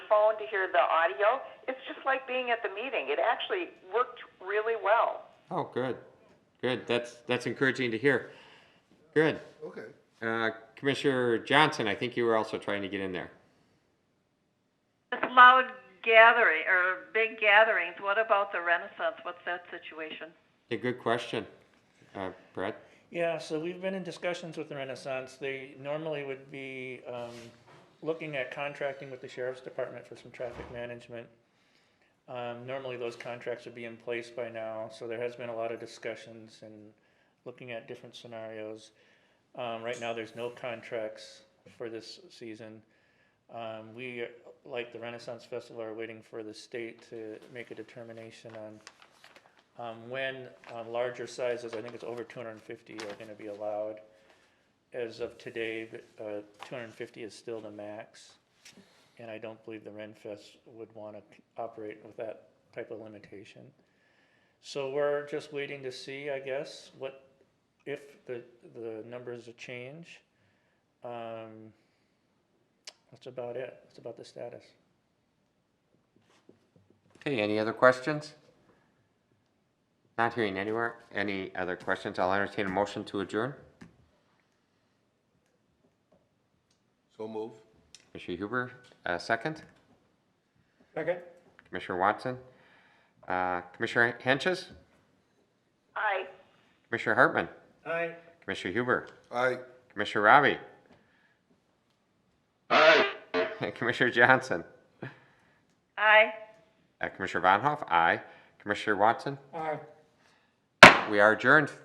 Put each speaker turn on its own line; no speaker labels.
phone to hear the audio. It's just like being at the meeting. It actually worked really well.
Oh, good, good. That's, that's encouraging to hear. Good.
Okay.
Uh, Commissioner Johnson, I think you were also trying to get in there.
This loud gathering, or big gatherings, what about the Renaissance? What's that situation?
A good question, uh, Brett.
Yeah, so we've been in discussions with the Renaissance. They normally would be um, looking at contracting with the sheriff's department for some traffic management. Um, Normally, those contracts would be in place by now, so there has been a lot of discussions and looking at different scenarios. Um, Right now, there's no contracts for this season. Um, We, like the Renaissance Festival, are waiting for the state to make a determination on um, when um, larger sizes, I think it's over 250, are going to be allowed. As of today, uh, 250 is still the max, and I don't believe the Ren Fest would want to operate with that type of limitation. So we're just waiting to see, I guess, what, if the, the numbers change. Um, That's about it, that's about the status.
Okay, any other questions? Not hearing anywhere, any other questions? I'll entertain a motion to adjourn.
So move.
Commissioner Huber, uh, second.
Okay.
Commissioner Watson. Uh, Commissioner Henches,
I
Commissioner Hartman,
Aye.
Commissioner Huber,
Aye.
Commissioner Robbie. Aye. Commissioner Johnson,
Aye.
uh, Commissioner Von Hoff, aye. Commissioner Watson,
Aye.
we are adjourned.